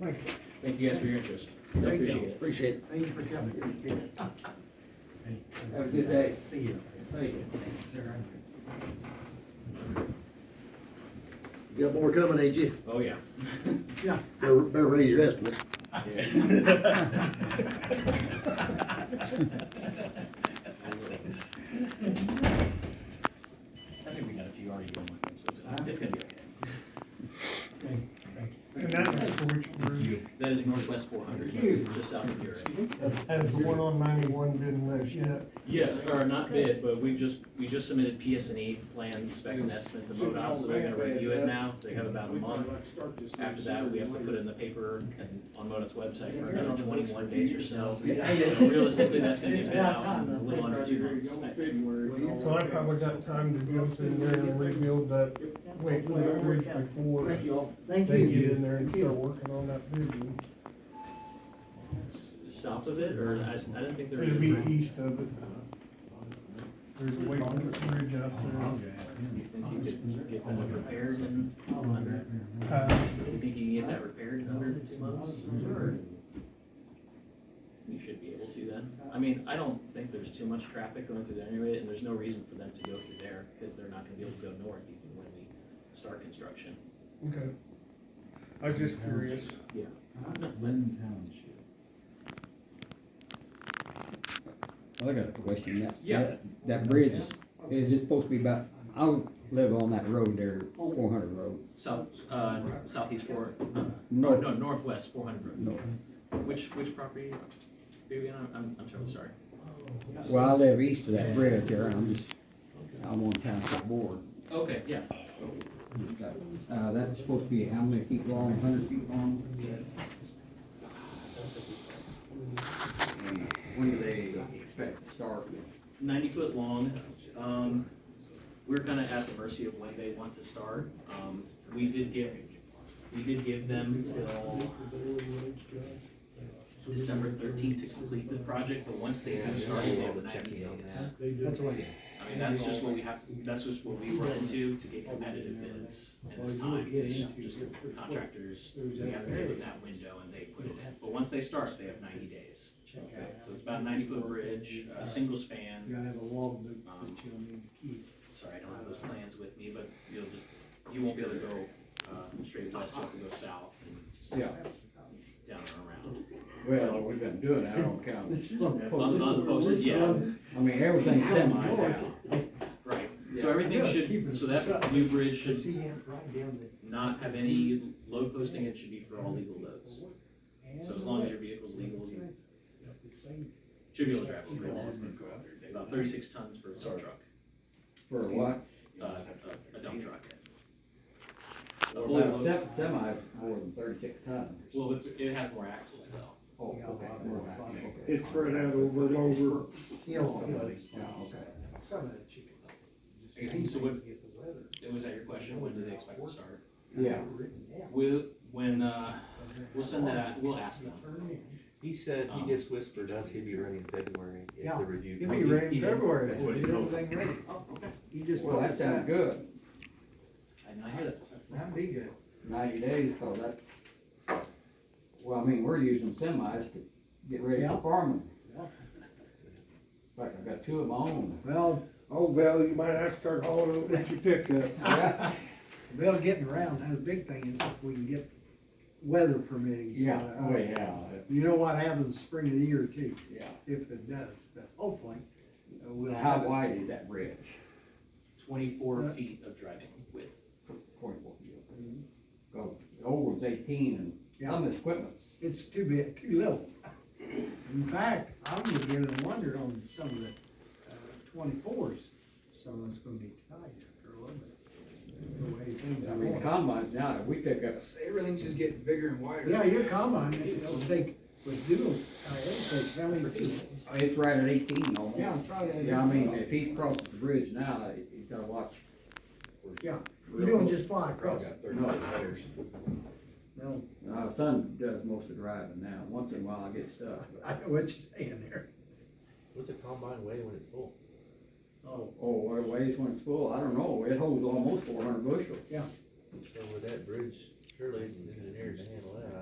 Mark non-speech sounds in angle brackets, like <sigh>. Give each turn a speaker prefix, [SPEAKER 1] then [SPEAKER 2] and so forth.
[SPEAKER 1] Thank you.
[SPEAKER 2] Thank you guys for your interest. I
[SPEAKER 1] Thank you.
[SPEAKER 2] Appreciate it.
[SPEAKER 3] Appreciate it.
[SPEAKER 1] Thank you for coming.
[SPEAKER 3] <laughs> Have a good day.
[SPEAKER 1] See you.
[SPEAKER 3] Thank you.
[SPEAKER 1] Thanks, sir.
[SPEAKER 3] You got more coming, ain't you?
[SPEAKER 2] Oh, yeah.
[SPEAKER 1] Yeah.
[SPEAKER 3] Better, better raise your estimate.
[SPEAKER 2] I think we got a few already going, so it's, it's gonna be okay.
[SPEAKER 1] Thank you. Thank you.
[SPEAKER 4] And that is for which bridge?
[SPEAKER 2] That is Northwest four hundred, just south of Bury.
[SPEAKER 4] Has the one on ninety-one been left yet?
[SPEAKER 2] Yes, or not bid, but we've just, we just submitted PS&E E plans, specs and estimates to MoDOT, so they're gonna review it now. They have about a month. After that, we have to put it in the paper and on MoDOT's website for another twenty-one days or so. So Realistically, that's gonna get bid out in a little under two months. I think.
[SPEAKER 4] So I probably got time to go in there and rebuild that, wait for that bridge before
[SPEAKER 3] Thank you all. Thank
[SPEAKER 4] they get in
[SPEAKER 3] you.
[SPEAKER 4] there and start working on that bridge.
[SPEAKER 2] South of it, or I, I didn't think there was.
[SPEAKER 4] It'd
[SPEAKER 2] a
[SPEAKER 4] be
[SPEAKER 2] bridge.
[SPEAKER 4] east of it. There's a wait for the bridge out
[SPEAKER 2] You think you could get that repaired in under,
[SPEAKER 4] there. Uh,
[SPEAKER 2] you think you can get that repaired in under two months? Or You should be able to then. I mean, I don't think there's too much traffic going through there anyway, and there's no reason for them to go through there, because they're not gonna be able to go north even when we start construction.
[SPEAKER 4] okay. I was just curious.
[SPEAKER 2] Yeah.
[SPEAKER 5] Lynn Township.
[SPEAKER 6] Well, I got a question, that,
[SPEAKER 2] Yeah.
[SPEAKER 6] that, that bridge, is- is it supposed to be about, I would live on that road there, four hundred road,
[SPEAKER 2] South, uh, southeast four, uh, no,
[SPEAKER 6] north,
[SPEAKER 2] northwest four hundred.
[SPEAKER 6] north.
[SPEAKER 2] Which, which property are you on? I'm, I'm terribly sorry.
[SPEAKER 6] Well, I live east of that bridge there, and I'm just, I'm on township board.
[SPEAKER 2] Okay, yeah.
[SPEAKER 6] Just got- Uh, that's supposed to be how many feet long, hundred feet long? And When do they expect to start?
[SPEAKER 2] ninety foot long. Um, we're kind of at the mercy of when they want to start. Um, we did give, we did give them till December thirteenth to complete the project, but once they have started, they have ninety days.
[SPEAKER 1] That's what I
[SPEAKER 2] I mean, that's just what we have, that's just what we run into to get competitive bids in this time, is just the contractors, we have to give them that window and they put it in. But once they start, they have ninety days.
[SPEAKER 1] check out.
[SPEAKER 2] So it's about a ninety foot bridge, a single span.
[SPEAKER 1] You gotta have a log book
[SPEAKER 2] Um,
[SPEAKER 1] that you'll need to keep.
[SPEAKER 2] Sorry, I don't have those plans with me, but you'll just, you won't be able to go, uh, straight west, you'll have to go south and
[SPEAKER 5] Yeah,
[SPEAKER 2] down and
[SPEAKER 5] well, we've been doing that on county.
[SPEAKER 1] This is on
[SPEAKER 2] around. On, on the posted, yeah,
[SPEAKER 5] I mean, everything's semi now.
[SPEAKER 2] right, so everything should, so that new bridge should
[SPEAKER 1] See, I'm right down there.
[SPEAKER 2] not have any load posting, it should be for all legal loads. So as long as your vehicle's legal, you should be able to drive over it, about thirty-six tons for a dump truck,
[SPEAKER 5] For what?
[SPEAKER 2] uh, a- a dump truck. A fully
[SPEAKER 5] Well,
[SPEAKER 2] loaded,
[SPEAKER 5] se- semi's more than thirty-six tons.
[SPEAKER 2] well, it- it has more axles though.
[SPEAKER 5] Oh, okay. more than that, okay.
[SPEAKER 4] It's spread out over and over.
[SPEAKER 1] Yeah, somebody.
[SPEAKER 5] Yeah, okay.
[SPEAKER 1] Some of that chicken.
[SPEAKER 2] I guess, so what,
[SPEAKER 1] Get the weather.
[SPEAKER 2] was that your question, when do they expect to start?
[SPEAKER 5] Yeah.
[SPEAKER 1] Written down.
[SPEAKER 2] We'll, when, uh, we'll send that, we'll ask them.
[SPEAKER 1] Turn in.
[SPEAKER 7] He said,
[SPEAKER 2] Um,
[SPEAKER 7] he just whispered us he'd be ready in February if
[SPEAKER 1] Yeah.
[SPEAKER 7] the review.
[SPEAKER 1] It'll be ready in
[SPEAKER 2] Yeah.
[SPEAKER 1] February.
[SPEAKER 2] That's what he
[SPEAKER 1] We'll
[SPEAKER 2] told
[SPEAKER 1] get everything ready.
[SPEAKER 2] Oh, okay.
[SPEAKER 1] You just.
[SPEAKER 5] Well, that sounds good,
[SPEAKER 2] I did not hear that.
[SPEAKER 1] That'd be good.
[SPEAKER 6] ninety days, cause that's, well, I mean, we're using semis to get ready
[SPEAKER 1] Yeah.
[SPEAKER 6] for farming.
[SPEAKER 1] Yeah.
[SPEAKER 6] In fact, I've got two of
[SPEAKER 1] <laughs>
[SPEAKER 6] my own.
[SPEAKER 1] Well,
[SPEAKER 4] Oh, well, you might have to start hauling over with your pickup.
[SPEAKER 6] Yeah,
[SPEAKER 1] Bill, getting around, that's a big thing, is if we can get weather permitting. so,
[SPEAKER 5] yeah,
[SPEAKER 1] uh,
[SPEAKER 5] oh, yeah,
[SPEAKER 1] You know what happens spring of the year too,
[SPEAKER 5] yeah.
[SPEAKER 1] if it does, but hopefully, uh, we'll
[SPEAKER 6] How
[SPEAKER 1] have it.
[SPEAKER 6] wide is that bridge?
[SPEAKER 2] Twenty-four feet of driving width.
[SPEAKER 6] Twenty-four feet.
[SPEAKER 1] Mm-hmm.
[SPEAKER 6] Cause the old one's eighteen and some of this equipment's
[SPEAKER 1] It's too big, too little. In fact, I'm beginning to wonder on some of the uh, twenty-fours, someone's gonna be tight after a little bit. The way things
[SPEAKER 6] I
[SPEAKER 1] are
[SPEAKER 6] mean,
[SPEAKER 1] going.
[SPEAKER 6] combines now, if we pick up,
[SPEAKER 3] Everything's just getting bigger and wider.
[SPEAKER 1] Yeah, your combine, it'll take, with doodles, uh, it'll take how many feet?
[SPEAKER 6] I mean, it's right at eighteen almost.
[SPEAKER 1] Yeah, try that.
[SPEAKER 6] Yeah, I mean, if he crosses the bridge now, he- he's gotta watch.
[SPEAKER 1] Yeah, you don't just fly across
[SPEAKER 5] Probably
[SPEAKER 1] it,
[SPEAKER 5] got thirty tires.
[SPEAKER 1] no,
[SPEAKER 6] My son does most of the driving now, once in a while I get stuck. but-
[SPEAKER 1] I know what you're saying there.
[SPEAKER 7] What's a combine weigh when it's full?
[SPEAKER 1] Oh,
[SPEAKER 6] Oh, what it weighs when it's full, I don't know, it holds almost four hundred bushels.
[SPEAKER 7] So with that bridge, surely it's engineered to handle that.